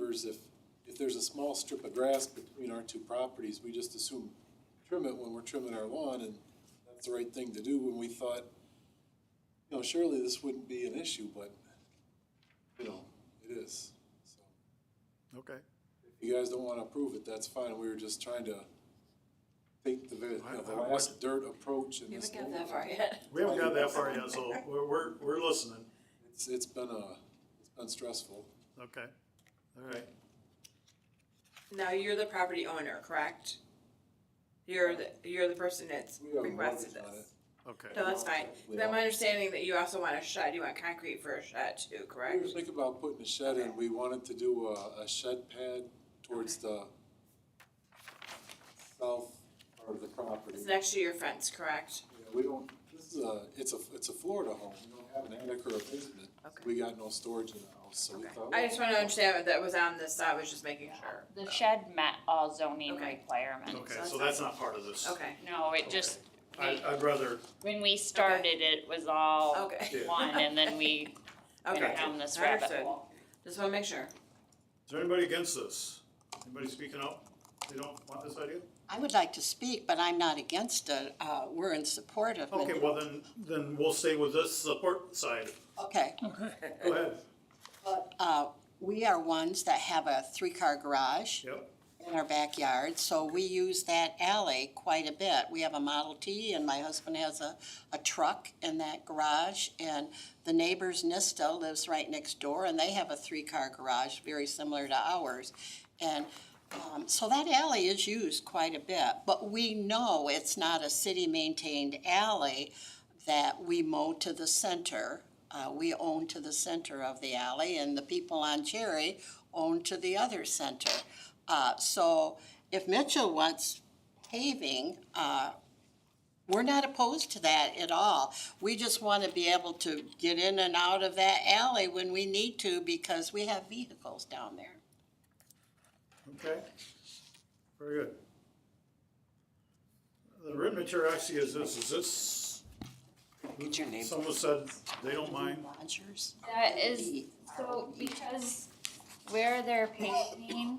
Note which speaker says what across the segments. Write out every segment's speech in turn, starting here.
Speaker 1: acres, if, if there's a small strip of grass between our two properties, we just assume trim it when we're trimming our lawn, and that's the right thing to do, when we thought, you know, surely this wouldn't be an issue, but, you know, it is. So
Speaker 2: Okay.
Speaker 1: If you guys don't wanna approve it, that's fine, we were just trying to take the, you know, the
Speaker 2: I- I would-
Speaker 1: last dirt approach in
Speaker 3: We
Speaker 1: this.
Speaker 3: haven't
Speaker 1: whole-
Speaker 3: gotten that far yet.
Speaker 2: We haven't got that far yet, so we're, we're, we're listening.
Speaker 1: It's, it's been a, it's been stressful.
Speaker 2: Okay. All right.
Speaker 3: Now, you're the property owner, correct? You're the, you're the person that's
Speaker 1: We have
Speaker 3: requested
Speaker 1: mortgage on
Speaker 3: this.
Speaker 2: Okay.
Speaker 3: No, that's fine.
Speaker 1: We
Speaker 3: Then
Speaker 1: are.
Speaker 3: my understanding that you also want a shed, you want concrete for a shed too,
Speaker 1: We were
Speaker 3: correct?
Speaker 1: thinking about putting a shed in, we wanted to do a, a shed pad towards the south part of the property.
Speaker 3: It's next to your fence, correct?
Speaker 1: Yeah, We don't, this is a, it's a, it's a Florida home, we don't have an attic or a basement.
Speaker 3: Okay.
Speaker 1: We got no storage in the house, so we
Speaker 3: Okay.
Speaker 1: thought.
Speaker 3: I just wanna understand what that was on this, I was just making sure.
Speaker 4: The shed met all zoning
Speaker 3: Okay.
Speaker 4: requirements.
Speaker 2: Okay, so that's not part of this.
Speaker 3: Okay,
Speaker 4: No, it just,
Speaker 2: I, uh, I'd rather,
Speaker 4: when we started, it was all
Speaker 3: okay,
Speaker 2: Yeah.
Speaker 4: one, and then we
Speaker 3: okay.
Speaker 4: went down this
Speaker 3: I
Speaker 4: rabbit
Speaker 3: understood.
Speaker 4: hole.
Speaker 3: Just wanna make sure.
Speaker 2: is there anybody against this? Anybody speaking up? They don't want this idea?
Speaker 5: I would like to speak, but I'm not against it. Uh, We're in support of it.
Speaker 2: Okay, well then, then we'll stay with this support side.
Speaker 5: Okay.
Speaker 2: Go ahead.
Speaker 5: Uh, We are ones that have a three-car garage
Speaker 2: Yep.
Speaker 5: in our backyard, so we use that alley quite a bit. We have a Model T, and my husband has a, a truck in that garage, and the neighbor's Nista lives right next door, and they have a three-car garage, very similar to ours. And um, so that alley is used quite a bit, but we know it's not a city-maintained alley that we mow to the center. Uh, we own to the center of the alley, and the people on Cherry own to the other center. Uh, so if Mitchell wants paving, uh, we're not opposed to that at all. We just want to be able to get in and out of that alley when we need to because we have vehicles down there.
Speaker 2: Okay. Very good. The written material actually is this, is this,
Speaker 5: Get your name.
Speaker 2: someone said they don't mind.
Speaker 5: Rogers.
Speaker 4: That is, so because where they're paving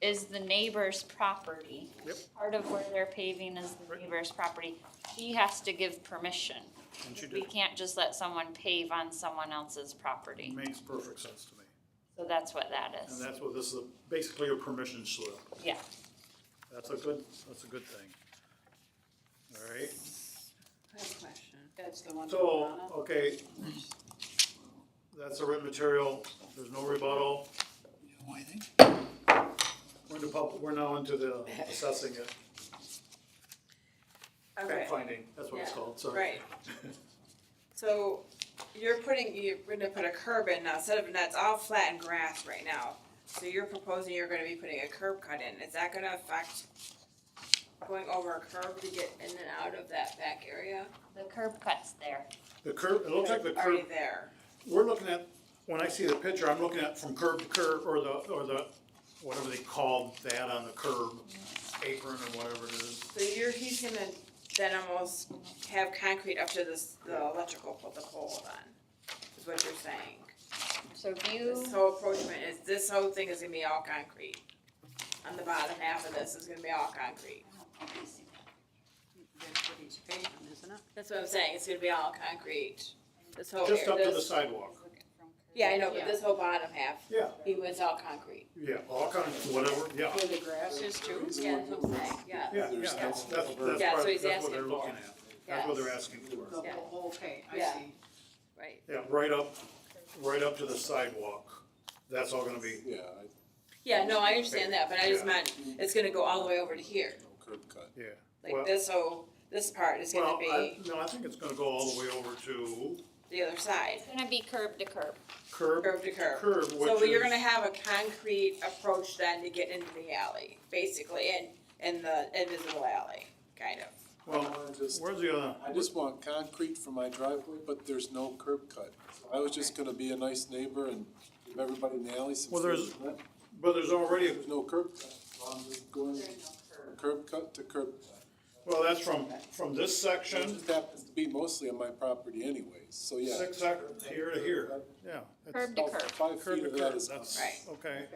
Speaker 4: is the neighbor's property.
Speaker 2: Yep.
Speaker 4: Part of where they're paving is the neighbor's property. He has to give permission.
Speaker 2: And she
Speaker 4: We
Speaker 2: did.
Speaker 4: can't just let someone pave on someone else's property.
Speaker 2: Makes perfect sense to me.
Speaker 4: So that's what that
Speaker 2: And
Speaker 4: is.
Speaker 2: that's what this is, basically a permission slip.
Speaker 4: Yeah.
Speaker 2: That's a good, that's a good thing. All right,
Speaker 3: question.
Speaker 6: That's the one.
Speaker 2: so, okay. That's a written material, there's no rebuttal. We're into pub, we're now into the assessing it,
Speaker 3: Okay,
Speaker 2: finding, that's what it's called, sorry.
Speaker 3: right. So you're putting, you're gonna put a curb in now, instead of, that's all flat and grass right now. So you're proposing you're gonna be putting a curb cut in, is that gonna affect going over a curb to get in and out of that back area?
Speaker 4: The curb cut's there.
Speaker 2: The curb, it looks like the curb,
Speaker 3: Already there,
Speaker 2: we're looking at, when I see the picture, I'm looking at from curb to curb, or the, or the, whatever they call that on the curb, apron or whatever it is.
Speaker 3: so you're, he's gonna then almost have concrete up to this, the electrical, put the pole on, is what you're saying.
Speaker 4: So if you,
Speaker 3: This whole approachment is, this whole thing is gonna be all concrete. On the bottom half of this is gonna be all concrete.
Speaker 6: That's what he's paying, isn't it?
Speaker 3: That's what I'm saying, it's gonna be all concrete. This whole
Speaker 2: Just
Speaker 3: area,
Speaker 2: up to the
Speaker 3: Oh, this-
Speaker 2: sidewalk,
Speaker 3: Yeah, I know, but this whole bottom half,
Speaker 2: yeah,
Speaker 3: he was all concrete.
Speaker 2: yeah, all kinds, of whatever, yeah.
Speaker 6: Where the grass is too.
Speaker 3: Yeah, that's what I'm saying, yeah.
Speaker 2: Yeah, yeah,
Speaker 1: There's
Speaker 2: that's,
Speaker 1: no-
Speaker 2: that's, that's part,
Speaker 3: Yeah, so he's
Speaker 2: that's what
Speaker 3: asking
Speaker 2: they're
Speaker 3: for
Speaker 2: looking
Speaker 3: it.
Speaker 2: at, that's what they're asking
Speaker 6: The
Speaker 2: for.
Speaker 3: Yeah.
Speaker 6: whole thing, I
Speaker 3: Yeah.
Speaker 6: see.
Speaker 3: Right.
Speaker 2: Yeah, right up, right up to the sidewalk, that's all gonna be,
Speaker 1: Yeah, I-
Speaker 3: Yeah, no, I understand that, but I just
Speaker 2: Yeah.
Speaker 3: meant, it's gonna go all the way over to here.
Speaker 1: no curb cut.
Speaker 2: yeah.
Speaker 3: Like this whole, this part is
Speaker 2: Well,
Speaker 3: gonna
Speaker 2: I,
Speaker 3: be
Speaker 2: no, I think it's gonna go all the way over to
Speaker 3: the other side,
Speaker 4: it's gonna be curb to curb.
Speaker 2: curb,
Speaker 3: curb to curb.
Speaker 2: curb,
Speaker 3: So
Speaker 2: which
Speaker 3: you're gonna
Speaker 2: is,
Speaker 3: have a concrete approach then to get into the alley, basically, and, and the invisible alley, kind of.
Speaker 1: I
Speaker 2: well,
Speaker 1: wanna just-
Speaker 2: where's the other?
Speaker 1: I just want concrete for my driveway, but there's no curb cut. I was just gonna be a nice neighbor and give everybody in the alley some.
Speaker 2: Well, there's-
Speaker 1: free rent.
Speaker 2: But there's already,
Speaker 1: There's no curb cut, so I'm just going curb cut to curb cut.
Speaker 2: well, that's from, from this
Speaker 1: It
Speaker 2: section,
Speaker 1: just happens to be mostly on my property anyways, so yeah.
Speaker 2: six, sec- here to here, yeah. it's-
Speaker 4: Curb to curb.
Speaker 1: Five
Speaker 2: Curb
Speaker 1: feet
Speaker 2: to
Speaker 1: of that
Speaker 2: curb,
Speaker 1: is.
Speaker 2: that's,
Speaker 3: Right.
Speaker 2: okay.